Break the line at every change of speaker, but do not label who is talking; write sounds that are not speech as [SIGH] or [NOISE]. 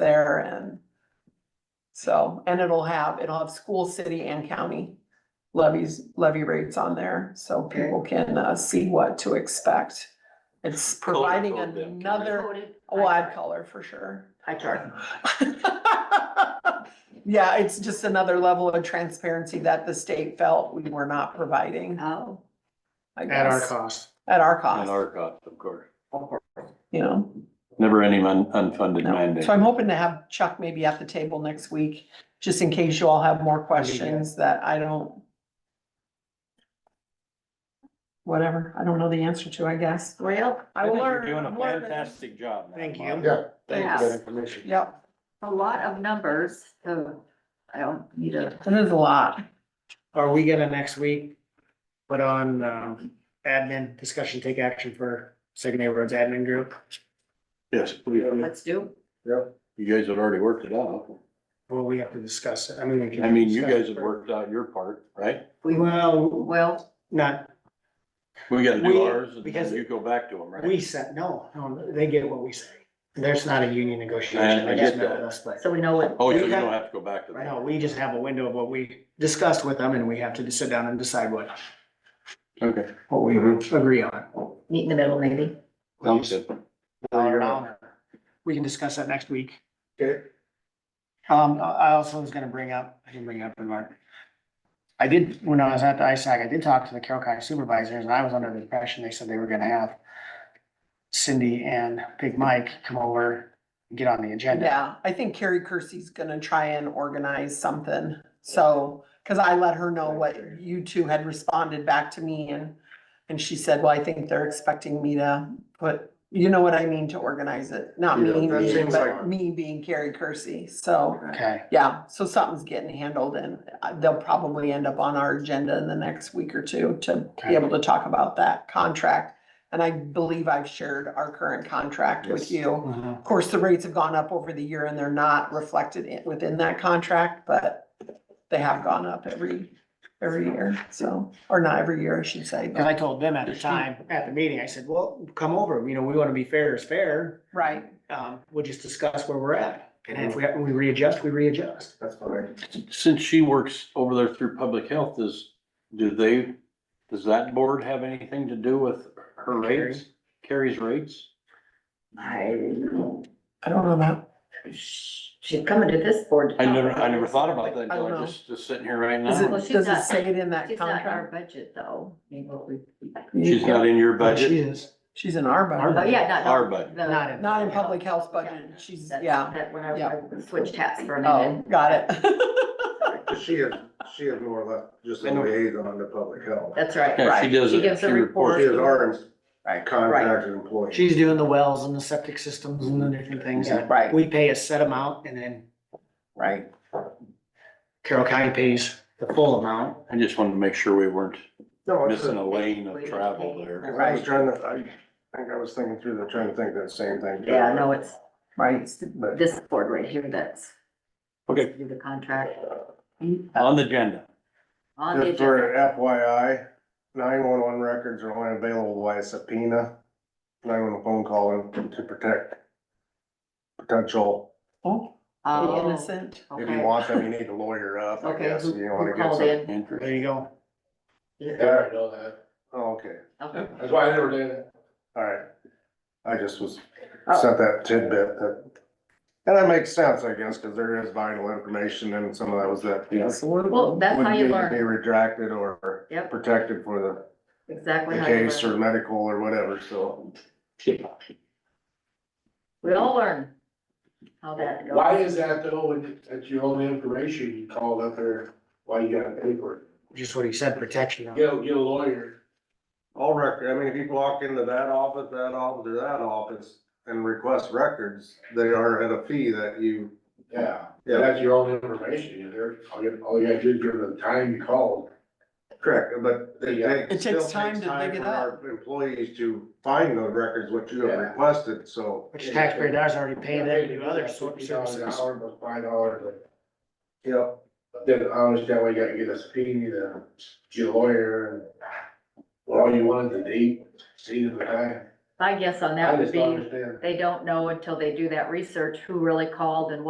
there and so, and it'll have, it'll have school, city and county levies, levy rates on there, so
Okay.
people can uh see what to expect. It's
Color
providing
code them, can we-
another, oh, I'd color for sure. [LAUGHS]
Hi, Charlie.
Yeah, it's just another level of transparency that the state felt we were not providing,
Oh.
I
At our
guess,
cost.
at our
And
cost,
our cost, of course.
you know?
Never any un- unfunded
No.
mandate.
So I'm hoping to have Chuck maybe at the table next week, just in case you all have more questions that I don't. Whatever, I don't know the answer to, I guess.
Well,
I will
think
learn.
You're doing
I'm
a
learning.
fantastic job. now,
Thank you.
Mark.
Yeah.
Thanks for that information.
Yep,
a lot of numbers, so I don't need a.
that is a lot.
Are we gonna next week put on, um, admin discussion, take action for Second Neighborhoods Admin Group?
Yes, we-
Let's do.
you guys had already worked it out.
Well, we have to discuss it. I mean, we can.
I mean, you
discuss
guys
it
had
for-
worked out your part, right?
We,
Well,
well,
not,
We gotta
We-
do ours and
because-
then you go back to them, right?
we said, no, no, they get what we say. There's not a union negotiation.
I- I
They just
get
met
that.
with us, but-
so we know what,
Oh, so
we
you
had-
don't have to go back to
Right
them.
now, we just have a window of what we discussed with them and we have to sit down and decide what,
Okay.
what we agree on.
meet in the middle maybe.
Mm-hmm. Sounds good.
Dollar an hour. We can discuss that next week.
Okay.
Um, I I also was gonna bring up, I didn't bring it up in Mark. I did, when I was at the ISAC, I did talk to the Carroll County supervisors and I was under the impression they said they were gonna have Cindy and Big Mike come over and get on the agenda.
Yeah, I think Carrie Kersey's gonna try and organize something, so, cause I let her know what you two had responded back to me and. And she said, well, I think they're expecting me to put, you know what I mean, to organize it, not me,
Yeah, that
being-
seems
but
like-
me being Carrie Kersey, so.
Okay,
Yeah, so something's getting handled and uh, they'll probably end up on our agenda in the next week or two to be
Okay.
able to talk about that contract. And I believe I've shared our current contract with
Yes.
you.
Mhm.
Of course, the rates have gone up over the year and they're not reflected in, within that contract, but they have gone up every, every year, so, or not every year, I should say,
cause
but,
I told them at the time, at the meeting, I said, well, come over, you know, we wanna be fair is fair.
right.
Um, we'll just discuss where we're at. And if we, have- we readjust, we readjust.
That's fine.
Since she works over there through public health, does, do they, does that board have anything to do with her
Carrie.
rates? Carrie's rates?
I,
I don't know that.
she's coming to this board. to
I
talk
never,
about
I never
this.
thought about that
I
until
don't know.
I just, just sitting here right
Does
now.
Well, she's
it, does it
not-
say it in that
She's not in our
contract?
budget though, I mean, what we.
She's not in your
She
budget?
is.
She's in our
Our
Oh,
budget.
yeah, not.
Our budget.
the-
Not in-
Not in public health budget,
Yeah.
she's,
That's-
yeah,
That when I
Yeah.
I switched hats for a
oh,
minute.
got it.
She is, she is more or less just a liaison to public health.
That's right.
Yeah, she
Right.
does
She
it.
gives
She
a
reports.
She is our
Right, right,
contracted employee.
She's doing the wells and the septic systems and the different things.
Yeah.
right,
We pay a set amount and then
right.
Carroll County pays the full amount.
I just wanted to make sure we weren't
No, it's
missing a
a-
lane of travel there.
I was trying to, I think I was thinking through, the trying to think that same thing.
Yeah, no, it's,
Right.
But
this board right here that's.
Okay.
Do the contract.
On the agenda.
On the
just
agenda.
for FYI, nine-one-one records are only available by subpoena, nine-one-one phone call and to protect potential,
Oh,
Oh,
innocent.
if you
okay.
want them, you need to lawyer up, I
Okay,
guess,
who
if you wanna
who
get
called
some.
in?
Interesting.
There you go.
Yeah.
I know that.
Oh, Okay,
Okay.
That's why I never did it.
all right. I just was
Oh.
sent that tidbit that. And that makes sense, I guess, because there is vital information and some of that was that.
Well, that's how you
Wouldn't
learn.
Be retracted or
Yep,
protected for the-
exactly
the
how you
case or
learn.
medical or whatever, so.
We all learn how that goes.
Why is that though, when that's your only information, you called up there, why you gotta pay for it?
Just what he said, protection.
Get, a- get a lawyer.
All record, I mean, if you walk into that office, that office, or that office and request records, they are at a fee that you.
Yeah,
Yeah,
that's your only information. You there, all you, all you gotta do is give them the time you called.
correct, but it
Yeah.
takes.
It takes
still
time to dig it
for our Employees to find those records, what you have
Yeah.
requested, so.
Which taxpayer dollars already pay them to do other sort of
$50 an
services.
hour, but five dollars.
Yep.
But then I understand why you gotta get a subpoena, to get a lawyer and. Well, all you wanted to date, see the time.
My guess on
I
that would
just don't
be,
understand.
they don't know until they do that research who really called and what